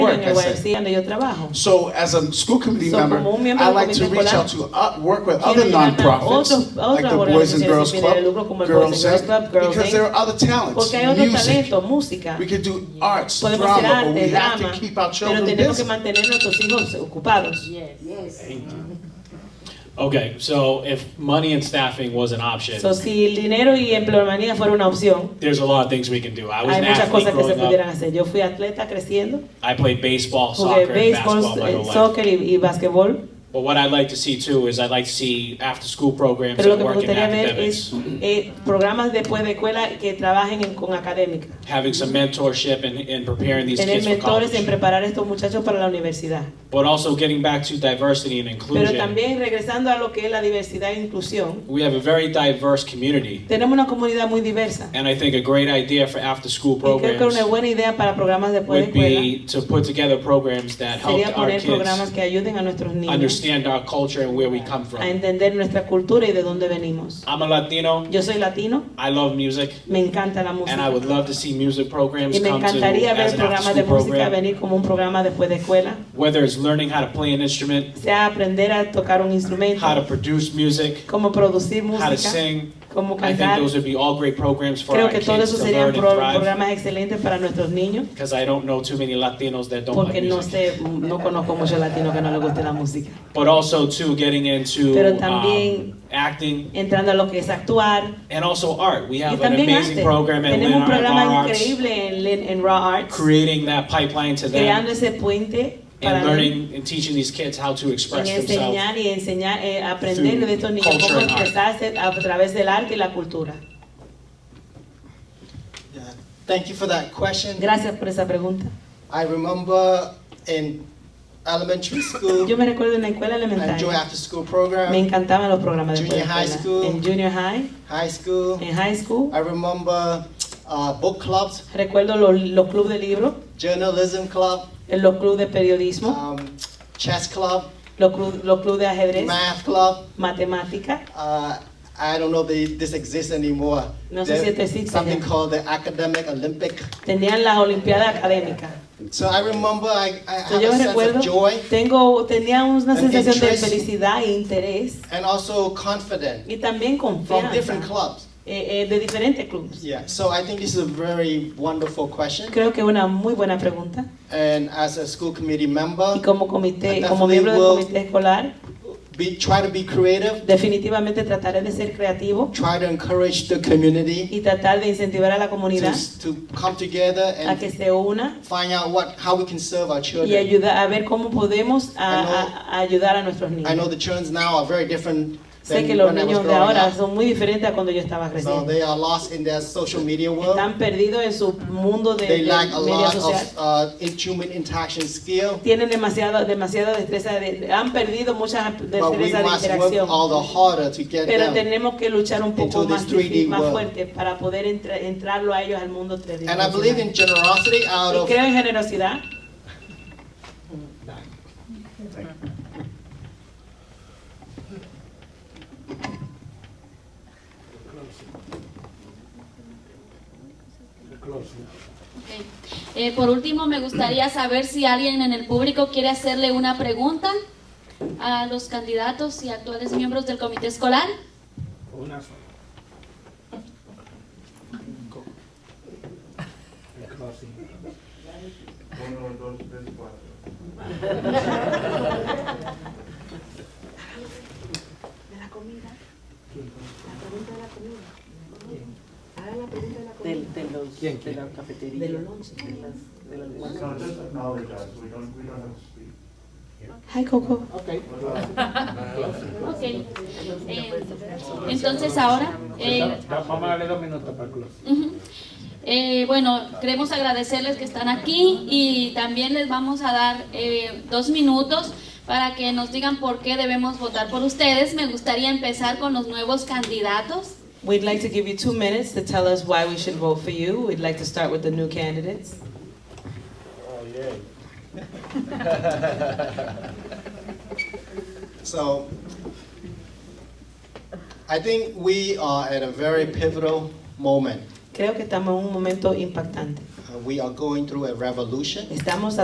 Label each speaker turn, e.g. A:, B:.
A: work,
B: en el
A: I said.
B: YMCA donde yo trabajo.
A: So as a school committee
B: So,
A: member,
B: como un miembro
A: I
B: del
A: like to
B: comité
A: reach
B: escolar,
A: out to, uh, work with
B: quiero
A: other
B: llegar a
A: nonprofits,
B: otros- a
A: like the
B: otras
A: Boys and Girls
B: organizaciones sin fines de
A: Club,
B: lucro como el Boys
A: Girls
B: and Girls
A: Inc.,
B: Club, Girls
A: because
B: Inc.
A: there are other talents,
B: Porque hay otros
A: music.
B: talentos, música.
A: We can do arts,
B: Podemos hacer
A: drama, but we
B: arte,
A: have
B: drama,
A: to keep our
B: pero
A: children
B: tenemos que
A: busy.
B: mantener a nuestros hijos ocupados.
C: Okay, so if money and staffing was an option,
B: So, si el dinero y empleomanía fuera una opción,
C: there's a lot of things we can do. I was
B: hay
C: an
B: muchas
C: athlete
B: cosas que se
C: growing
B: pudieran
C: up.
B: hacer. Yo fui atleta creciendo,
C: I played baseball,
B: jugué
C: soccer, and
B: béisbol,
C: basketball my
B: eh,
C: whole life.
B: soccer y, y basquetbol.
C: But what I'd like to see too is I'd like to see after-school programs
B: Pero lo que
C: that
B: me
C: work in
B: gustaría ver es
C: academics.
B: eh, programas después de escuela que trabajen en- con académica.
C: Having some mentorship and, and preparing these
B: Tener
C: kids for
B: mentores en
C: college.
B: preparar a estos muchachos para la universidad.
C: But also getting back to diversity and
B: Pero
C: inclusion.
B: también regresando a lo que es la diversidad e inclusión,
C: We have a very diverse community.
B: tenemos una comunidad muy diversa.
C: And I think a great idea for after-school
B: Y creo que una
C: programs
B: buena idea para programas después de
C: would
B: escuela
C: be to put together programs that
B: sería
C: help our
B: poner programas
C: kids
B: que ayuden a nuestros niños
C: understand our culture and where we come
B: a
C: from.
B: entender nuestra cultura y de dónde venimos.
C: I'm a Latino.
B: Yo soy latino,
C: I love music,
B: me encanta la
C: and I
B: música
C: would love to see music programs
B: y me
C: come to
B: encantaría
C: as
B: ver
C: an
B: programas de
C: after-school
B: música
C: program.
B: venir como un programa después de escuela,
C: Whether it's learning how to play an instrument,
B: sea aprender a tocar un
C: how to
B: instrumento,
C: produce music,
B: cómo producir
C: how to
B: música,
C: sing.
B: cómo
C: I think
B: cantar.
C: those would be all great programs for
B: Creo
C: our
B: que todo
C: kids
B: eso
C: to
B: serían
C: learn and
B: pro-
C: thrive.
B: programas excelentes para nuestros niños
C: Because I don't know too many Latinos that don't like
B: porque no
C: music.
B: sé, no conozco muchos latinos que no les guste la música.
C: But also too, getting into
B: Pero
C: um,
B: también-
C: acting
B: Entrando a lo que es actuar,
C: and also art. We
B: Y
C: have an
B: también
C: amazing
B: arte.
C: program at
B: Tenemos un
C: Lynn Art
B: programa
C: Bar Arts,
B: increíble en, Lin- en Raw Arts,
C: creating that pipeline to
B: creando
C: them
B: ese puente para
C: and
B: learning,
C: learning and teaching these kids how to express themselves.
B: enseñar y enseñar, eh, aprender
C: through
B: de estos niños
C: culture
B: cómo
C: and art.
B: expresarse a través del arte y la cultura.
D: Yeah. Thank you for that question.
B: Gracias por esa pregunta.
D: I remember in elementary school,
B: Yo me recuerdo en la escuela
D: I enjoy
B: elemental,
D: after school
B: me
D: program,
B: encantaban los programas de
D: Junior high
B: escuela.
D: school.
B: En junior high,
D: high school.
B: en high school,
D: I remember uh, book clubs,
B: recuerdo los, los clubes de libro,
D: journalism club,
B: eh, los clubes de periodismo,
D: um, chess club,
B: los clubes los clubes de ajedrez,
D: math club.
B: matemática,
D: Uh, I don't know if they, this exists anymore.
B: No sé si esto existe
D: something
B: ya.
D: called the Academic Olympic.
B: tenían las olimpiadas académicas.
D: So I remember I, I
B: So,
D: have
B: yo
D: a
B: me
D: sense
B: recuerdo,
D: of joy
B: tengo, tenía una
D: An
B: sensación de
D: interest.
B: felicidad e interés
D: and also confident
B: y también
D: from different
B: confianza
D: clubs.
B: eh, eh, de diferentes clubes.
D: Yeah, so I think this is a very wonderful question.
B: Creo que es una muy buena pregunta.
D: And as a school committee member,
B: Y como comité,
D: Uh, I
B: como
D: definitely
B: miembro del
D: will-
B: comité escolar,
D: be, try to be creative,
B: definitivamente trataré de ser creativo
D: try to encourage the community
B: y tratar de incentivar a la comunidad
D: to, to come together
B: a que
D: and
B: se una
D: find out what, how we can serve our
B: y
D: children.
B: ayuda, a ver cómo podemos a- a- a ayudar a nuestros
D: I know
B: niños.
D: the children now are very different
B: Sé
D: than
B: que los
D: when I was
B: niños de
D: growing
B: ahora
D: up.
B: son muy diferentes a cuando yo estaba
D: So
B: creciendo.
D: they are lost in their social media world.
B: Están perdidos en su mundo de,
D: They
B: de
D: lack a
B: media
D: lot
B: social.
D: of uh, in- human interaction skill,
B: tienen demasiado, demasiada destreza, de- han perdido muchas
D: but we
B: destrezas de
D: must work
B: interacción.
D: all the harder to get
B: Pero
D: them.
B: tenemos que luchar un poco
D: into
B: más,
D: this 3D
B: difí- más
D: world.
B: fuerte para poder entra- entrarlo a ellos al mundo
D: And I believe in
B: tridimensional.
D: generosity out
B: Y
D: of
B: creo en generosidad.
E: Ok. Eh, por último, me gustaría saber si alguien en el público quiere hacerle una pregunta a los candidatos y actuales miembros del comité escolar.
F: Del, de los, de la cafetería. De los de las, de las-
G: No, just acknowledge us, we don't, we don't have to speak.
B: Hi Coco.
F: Okay.
E: Ok. Eh, entonces ahora, eh,
F: Vamos a darle dos minutos para el close.
E: ujú. Eh, bueno, queremos agradecerles que están aquí y también les vamos a dar eh, dos minutos para que nos digan por qué debemos votar por ustedes. Me gustaría empezar con los nuevos candidatos.
B: We'd like to give you two minutes to tell us why we should vote for you. We'd like to start with the new candidates.
D: So I think we are at a very pivotal moment.
B: Creo que estamos en un momento impactante.
D: Uh, We are going through a revolution.
B: Estamos